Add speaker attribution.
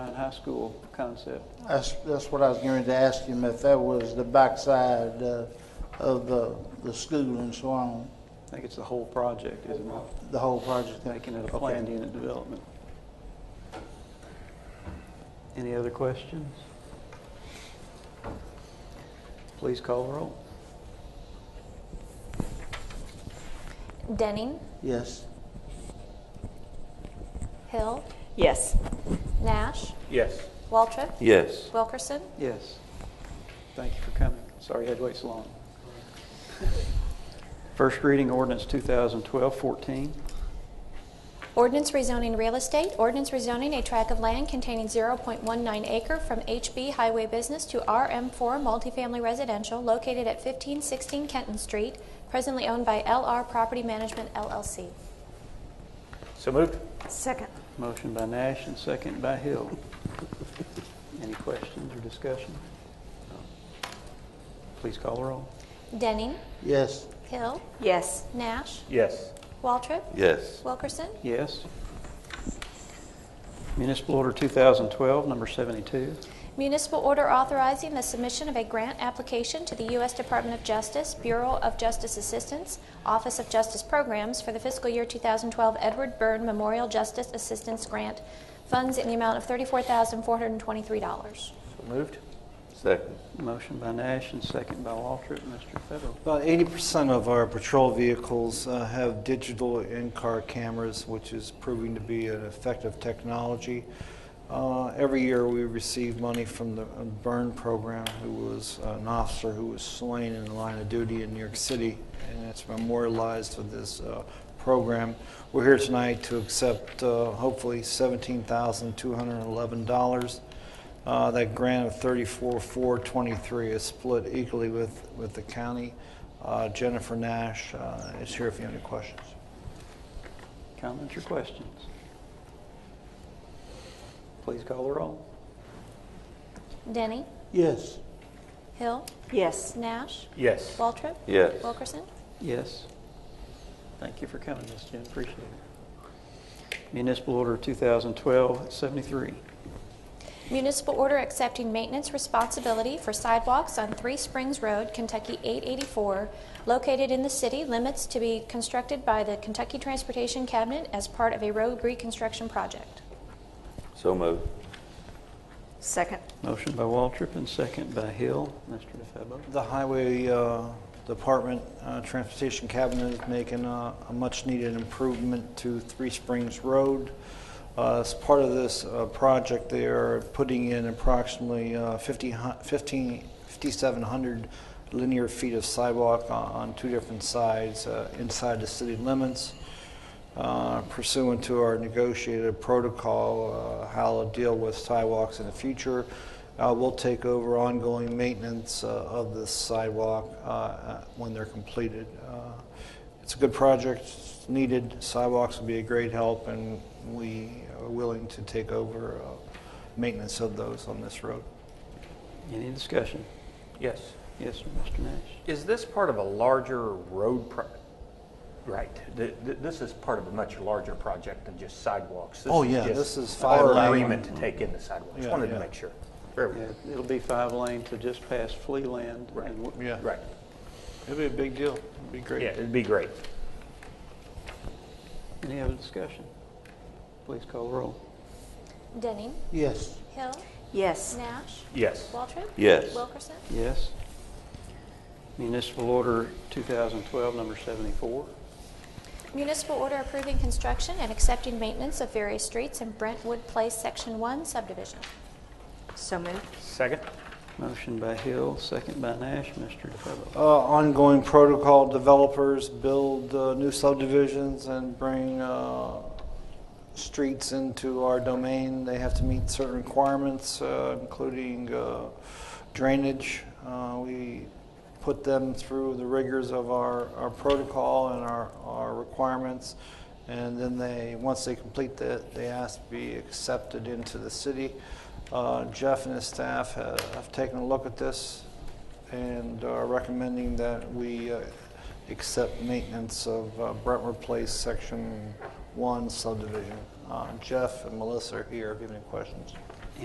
Speaker 1: and high school concept.
Speaker 2: That's, that's what I was going to ask him, if that was the backside uh, of the, the school and so on,
Speaker 1: I think it's the whole project, isn't it?
Speaker 2: the whole project.
Speaker 1: Making it a
Speaker 2: Okay.
Speaker 1: planned unit development. Any other questions? Please call the roll.
Speaker 3: Denning,
Speaker 2: Yes.
Speaker 3: Hill,
Speaker 4: Yes.
Speaker 3: Nash,
Speaker 5: Yes.
Speaker 3: Waltrip,
Speaker 5: Yes.
Speaker 3: Wilkerson,
Speaker 1: Yes. Thank you for coming. Sorry you had to wait so long. First reading ordinance 2012-14.
Speaker 3: Ordinance rezoning real estate. Ordinance rezoning a tract of land containing 0.19 acre from HB Highway Business to RM4 Multifamily Residential located at 1516 Kenton Street, presently owned by LR Property Management LLC.
Speaker 5: So moved?
Speaker 4: Second.
Speaker 1: Motion by Nash and second by Hill. Any questions or discussion? Please call the roll.
Speaker 3: Denning,
Speaker 2: Yes.
Speaker 3: Hill,
Speaker 4: Yes.
Speaker 3: Nash,
Speaker 5: Yes.
Speaker 3: Waltrip,
Speaker 5: Yes.
Speaker 3: Wilkerson.
Speaker 1: Yes. Municipal Order 2012, number 72.
Speaker 3: Municipal order authorizing the submission of a grant application to the U.S. Department of Justice, Bureau of Justice Assistance, Office of Justice Programs for the fiscal year 2012 Edward Byrne Memorial Justice Assistance Grant, funds in the amount of $34,423.
Speaker 5: So moved?
Speaker 6: Second.
Speaker 1: Motion by Nash and second by Waltrip. Mr. Febo.
Speaker 7: About 80% of our patrol vehicles uh, have digital in-car cameras, which is proving to be an effective technology. Uh, Every year, we receive money from the uh, Byrne program, who was an officer who was slain in the line of duty in New York City, and it's memorialized with this uh, program. We're here tonight to accept, uh, hopefully, $17,211. Uh, That grant of 34,423 is split equally with, with the county. Uh, Jennifer Nash uh, is here if you have any questions.
Speaker 1: Comments or questions? Please call the roll.
Speaker 3: Denny,
Speaker 2: Yes.
Speaker 3: Hill,
Speaker 4: Yes.
Speaker 3: Nash,
Speaker 5: Yes.
Speaker 3: Waltrip,
Speaker 6: Yes.
Speaker 3: Wilkerson.
Speaker 1: Yes. Thank you for coming, Ms. Jen. Appreciate it. Municipal Order 2012-73.
Speaker 3: Municipal order accepting maintenance responsibility for sidewalks on Three Springs Road, Kentucky 884, located in the city limits to be constructed by the Kentucky Transportation Cabinet as part of a road reconstruction project.
Speaker 6: So moved.
Speaker 4: Second.
Speaker 1: Motion by Waltrip and second by Hill. Mr. DeFebo.
Speaker 7: The Highway uh, Department uh, Transportation Cabinet is making uh, a much-needed improvement to Three Springs Road. Uh, As part of this uh, project, they are putting in approximately uh, 50 hu- 15 5,700 linear feet of sidewalk on- on two different sides uh, inside the city limits. uh, pursuant to our negotiated protocol, uh, how to deal with sidewalks in the future. Uh, We'll take over ongoing maintenance uh, of this sidewalk uh, uh, when they're completed. Uh, It's a good project, it's needed, sidewalks will be a great help, and we are willing to take over uh, maintenance of those on this road.
Speaker 1: Any discussion?
Speaker 5: Yes.
Speaker 1: Yes, sir, Mr. Nash.
Speaker 5: Is this part of a larger road pro, right, th- th- this is part of a much larger project than just sidewalks. This
Speaker 7: Oh,
Speaker 5: is
Speaker 7: yeah,
Speaker 5: just
Speaker 7: this is five
Speaker 5: Our
Speaker 7: lane.
Speaker 5: agreement to take in the sidewalks,
Speaker 7: Yeah,
Speaker 5: wanted to
Speaker 7: yeah.
Speaker 5: make sure. Very well.
Speaker 1: Yeah, It'll be five lane to just past Flea Land. and
Speaker 5: Right.
Speaker 1: w-
Speaker 7: Yeah.
Speaker 5: Right,
Speaker 7: It'd be a big deal, it'd be great.
Speaker 5: yeah, it'd be great.
Speaker 1: Any other discussion? Please call the roll.
Speaker 3: Denning,
Speaker 2: Yes.
Speaker 3: Hill,
Speaker 4: Yes.
Speaker 3: Nash,
Speaker 5: Yes.
Speaker 3: Waltrip.
Speaker 6: Yes.
Speaker 3: Wilkerson.
Speaker 1: Yes. Municipal Order 2012, number 74.
Speaker 3: Municipal order approving construction and accepting maintenance of various streets in Brentwood Place Section 1 subdivision.
Speaker 4: So moved.
Speaker 5: Second?
Speaker 1: Motion by Hill, second by Nash. Mr. DeFebo.
Speaker 7: uh, ongoing protocol, developers build uh, new subdivisions and bring uh, streets into our domain. They have to meet certain requirements, uh, including uh, drainage. Uh, We put them through the rigors of our our protocol and our our requirements, and then they, once they complete that, they ask to be accepted into the city. Uh, Jeff and his staff ha- have taken a look at this and are recommending that we uh, accept maintenance of uh, Brentwood Place Section 1 subdivision. Uh, Jeff and Melissa are here if you have any questions.